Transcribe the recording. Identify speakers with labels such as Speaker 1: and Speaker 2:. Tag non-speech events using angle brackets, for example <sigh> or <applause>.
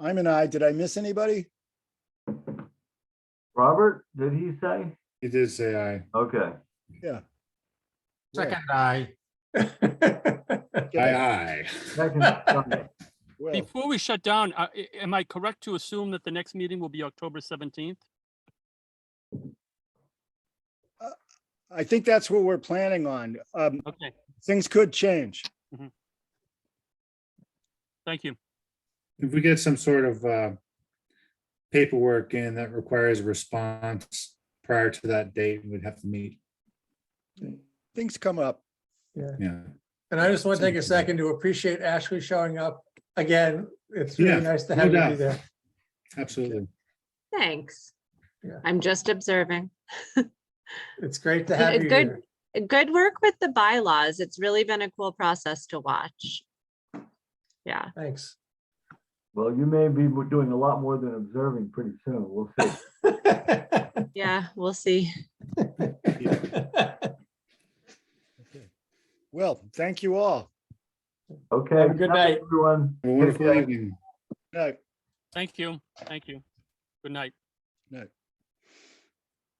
Speaker 1: I'm an I. Did I miss anybody?
Speaker 2: Robert, did he say?
Speaker 3: He did say aye.
Speaker 2: Okay,
Speaker 4: Second eye.
Speaker 3: <laughs> uh, Aye,
Speaker 4: <laughs>
Speaker 2: second
Speaker 3: aye.
Speaker 2: Sunday.
Speaker 1: Well,
Speaker 5: Before we shut down, uh, i- am I correct to assume that the next meeting will be October 17th?
Speaker 1: I think that's what we're planning on. Um,
Speaker 5: Okay,
Speaker 1: things could change.
Speaker 5: thank you.
Speaker 3: If we get some sort of uh, paperwork in that requires a response prior to that date, we'd have to meet.
Speaker 1: Things come up.
Speaker 3: Yeah.
Speaker 4: And I just want to take a second to appreciate Ashley showing up again. It's
Speaker 3: Yeah,
Speaker 4: really nice to
Speaker 3: no
Speaker 4: have you
Speaker 3: doubt.
Speaker 4: there.
Speaker 3: Absolutely.
Speaker 6: Thanks.
Speaker 4: Yeah.
Speaker 6: I'm just observing.
Speaker 4: It's great to
Speaker 6: It-
Speaker 4: have
Speaker 6: it's
Speaker 4: you
Speaker 6: good.
Speaker 4: here.
Speaker 6: Good work with the bylaws. It's really been a cool process to watch. Yeah,
Speaker 4: Thanks.
Speaker 2: Well, you may be doing a lot more than observing pretty soon. We'll
Speaker 4: <laughs>
Speaker 2: see.
Speaker 6: yeah, we'll see.
Speaker 4: <laughs> Have
Speaker 1: Well, thank you all.
Speaker 2: Okay.
Speaker 4: Have a good night.
Speaker 2: Everyone.
Speaker 3: Have a Wonderful
Speaker 2: Okay.
Speaker 3: evening.
Speaker 1: Good night.
Speaker 5: Thank you, thank you. Good night.